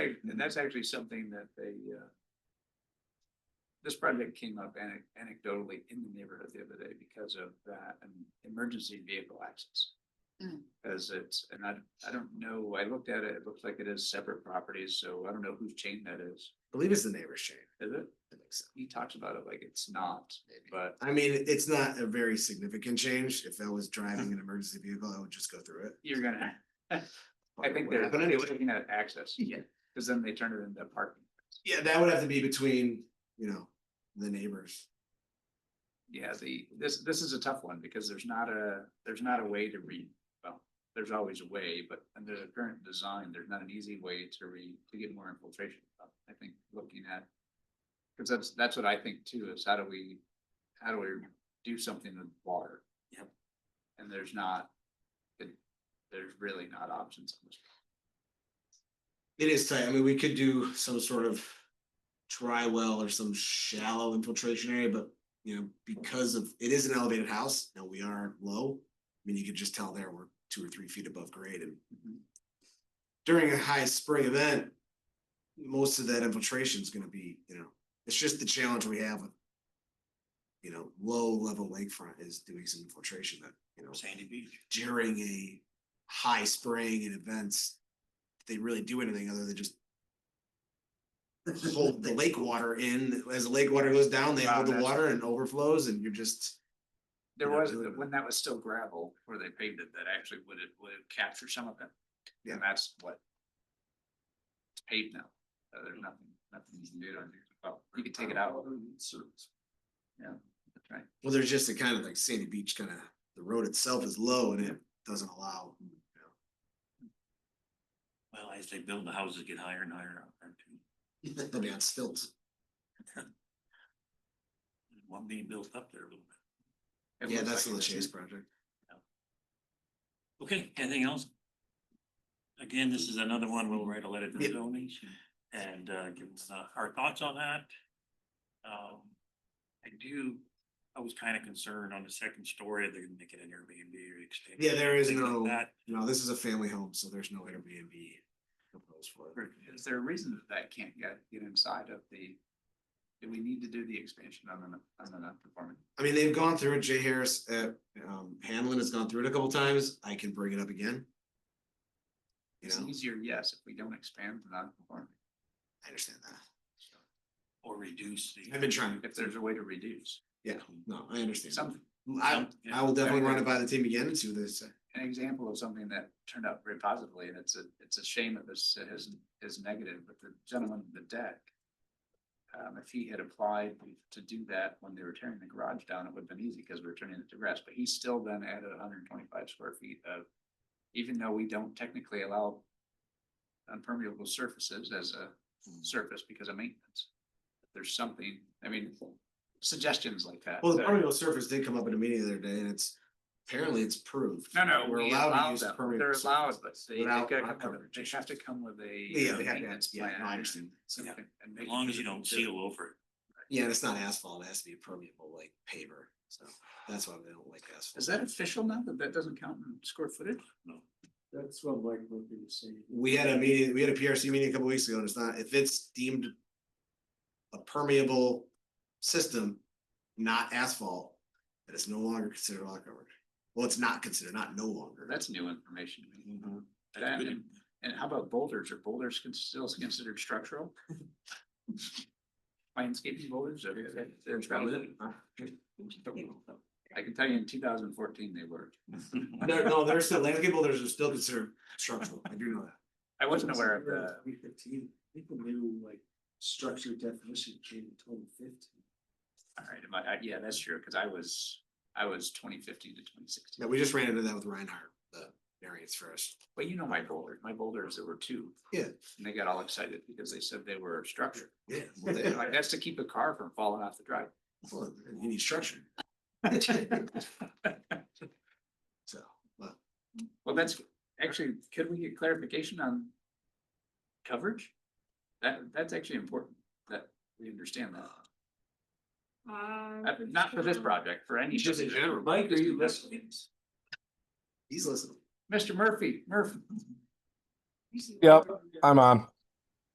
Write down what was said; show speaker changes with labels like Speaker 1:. Speaker 1: that's actually something that they, uh, this project came up ane- anecdotally in the neighborhood the other day because of that and emergency vehicle access.
Speaker 2: Hmm.
Speaker 3: Mm.
Speaker 1: As it's, and I, I don't know, I looked at it, it looks like it is separate properties, so I don't know whose chain that is.
Speaker 2: believe it's the neighbor's chain.
Speaker 1: Is it?
Speaker 2: I think so.
Speaker 1: He talks about it like it's not, but
Speaker 2: I mean, it- it's not a very significant change. If I was driving an emergency vehicle, I would just go through it.
Speaker 1: you're gonna, I think
Speaker 2: What
Speaker 1: they're
Speaker 2: happened anyway.
Speaker 1: looking at access.
Speaker 2: Yeah.
Speaker 1: Cause then they turn it into parking.
Speaker 2: Yeah, that would have to be between, you know, the neighbors.
Speaker 1: Yeah, the, this, this is a tough one because there's not a, there's not a way to read, well, there's always a way, but under the current design, there's not an easy way to read, to get more infiltration. I think looking at, cause that's, that's what I think too, is how do we, how do we do something with water?
Speaker 2: Yep.
Speaker 1: And there's not, it- there's really not options. on this.
Speaker 2: It is tight. I mean, we could do some sort of dry well or some shallow infiltration area, but you know, because of, it is an elevated house. Now we are low. I mean, you could just tell there we're two or three feet above grade and during a high spring event, most of that infiltration is gonna be, you know, it's just the challenge we have with, you know, low level lakefront is doing some infiltration that, you know,
Speaker 4: Sandy Beach.
Speaker 2: during a high spring and events, they really do anything other than just hold the lake water in. As the lake water goes down, they
Speaker 1: Wow,
Speaker 2: hold the
Speaker 1: that's-
Speaker 2: water and overflows and you're just,
Speaker 1: There
Speaker 2: Yeah,
Speaker 1: was,
Speaker 2: really.
Speaker 1: when that was still gravel, where they paved it, that actually would have, would have captured some of it.
Speaker 2: Yeah.
Speaker 1: And that's what. It's paved now, so there's nothing, nothing you can do on it, well, you could take it out. Yeah, that's right,
Speaker 2: well, there's just a kind of like sandy beach kind of, the road itself is low and it doesn't allow. you know,
Speaker 4: Well, as they build, the houses get higher and higher out there too.
Speaker 2: They'll be on stilts.
Speaker 4: There's One being built up there a little bit.
Speaker 1: It
Speaker 2: Yeah,
Speaker 1: looks
Speaker 2: that's
Speaker 1: like
Speaker 2: the
Speaker 1: it is.
Speaker 2: Chase project.
Speaker 4: Okay, anything else? Again, this is another one. We'll write a letter to the
Speaker 2: Yeah.
Speaker 4: zoning and uh give us uh, our thoughts on that. Um, I do, I was kind of concerned on the second story, they're gonna make it an Airbnb or extend.
Speaker 2: Yeah, there is
Speaker 4: things like
Speaker 2: no-
Speaker 4: that.
Speaker 2: No, this is a family home, so there's no Airbnb proposed for it.
Speaker 1: Is there a reason that that can't get, get inside of the, do we need to do the expansion on an, on an non-conforming?
Speaker 2: I mean, they've gone through it. Jay Harris at um Hanlon has gone through it a couple times. I can bring it up again. You
Speaker 1: It's
Speaker 2: know,
Speaker 1: easier, yes, if we don't expand the non-conforming,
Speaker 2: I understand that.
Speaker 4: Or reduce the.
Speaker 2: I've been trying.
Speaker 1: if there's a way to reduce
Speaker 2: Yeah, no, I understand.
Speaker 1: something.
Speaker 2: I
Speaker 4: Yeah.
Speaker 2: I will definitely run it by the team again and see what they say.
Speaker 1: an example of something that turned out very positively, and it's a, it's a shame that this is, is negative, but the gentleman in the deck. Um, if he had applied to do that when they were tearing the garage down, it would have been easy because we were turning it to grass, but he still then added hundred and twenty-five square feet of. Even though we don't technically allow impermeable surfaces as a
Speaker 2: Hmm.
Speaker 1: surface because of maintenance. There's something, I mean, suggestions like that.
Speaker 2: Well, the
Speaker 1: that-
Speaker 2: permeable surface did come up at a meeting the other day and it's apparently it's proved.
Speaker 1: No, no,
Speaker 2: We're
Speaker 1: we
Speaker 2: allowed to
Speaker 1: allow
Speaker 2: use
Speaker 1: them.
Speaker 2: permeable
Speaker 1: They're allowed,
Speaker 2: surfaces
Speaker 1: but they, they
Speaker 2: without
Speaker 1: gotta come
Speaker 2: lot
Speaker 1: with a-
Speaker 2: coverage
Speaker 1: they have to come with a.
Speaker 2: Yeah, they have to,
Speaker 1: maintenance
Speaker 2: yeah,
Speaker 1: plan
Speaker 2: I understand.
Speaker 1: something, and
Speaker 4: As
Speaker 1: make
Speaker 4: long as
Speaker 1: sure
Speaker 4: you don't
Speaker 1: that they're-
Speaker 4: seal over it.
Speaker 2: Yeah, and it's not asphalt. It has to be permeable like paver. So that's why they don't like asphalt.
Speaker 1: Is that official now that that doesn't count in square footage?
Speaker 4: No.
Speaker 1: That's what Mike would be saying.
Speaker 2: we had a meeting, we had a PRC meeting a couple weeks ago, and it's not, if it's deemed a permeable system, not asphalt, that it's no longer considered lot coverage. Well, it's not considered, not no longer.
Speaker 1: That's new information. to me.
Speaker 4: Mm-hmm. That's
Speaker 1: That
Speaker 4: good.
Speaker 1: and, and how about boulders? Are boulders con- still considered structural? Landscaping boulders are. they're valid. I can tell you in two thousand and fourteen, they were.
Speaker 2: No, no, there's still, landscape boulders are still considered structural. I do know that.
Speaker 1: I wasn't aware of the.
Speaker 5: People knew like structure definition came in twenty fifteen.
Speaker 1: All right, am I- I- yeah, that's true, because I was, I was twenty fifteen to twenty sixteen,
Speaker 2: Yeah, we just ran into that with Reinhardt, the variance first.
Speaker 1: but you know my boulders, my boulders, there were two.
Speaker 2: Yeah.
Speaker 1: And they got all excited because they said they were structured,
Speaker 2: Yeah. well, they-
Speaker 1: like that's to keep a car from falling off the drive.
Speaker 2: well, You need structure. So, but
Speaker 1: Well, that's, actually, could we get clarification on coverage? That, that's actually important, that we understand that, Uh, not for this project, for any.
Speaker 2: Just in
Speaker 1: subdivision.
Speaker 2: general.
Speaker 5: Mike, are you listening?
Speaker 2: he's listening.
Speaker 1: Mr. Murphy, Murphy,
Speaker 6: Yep, I'm on.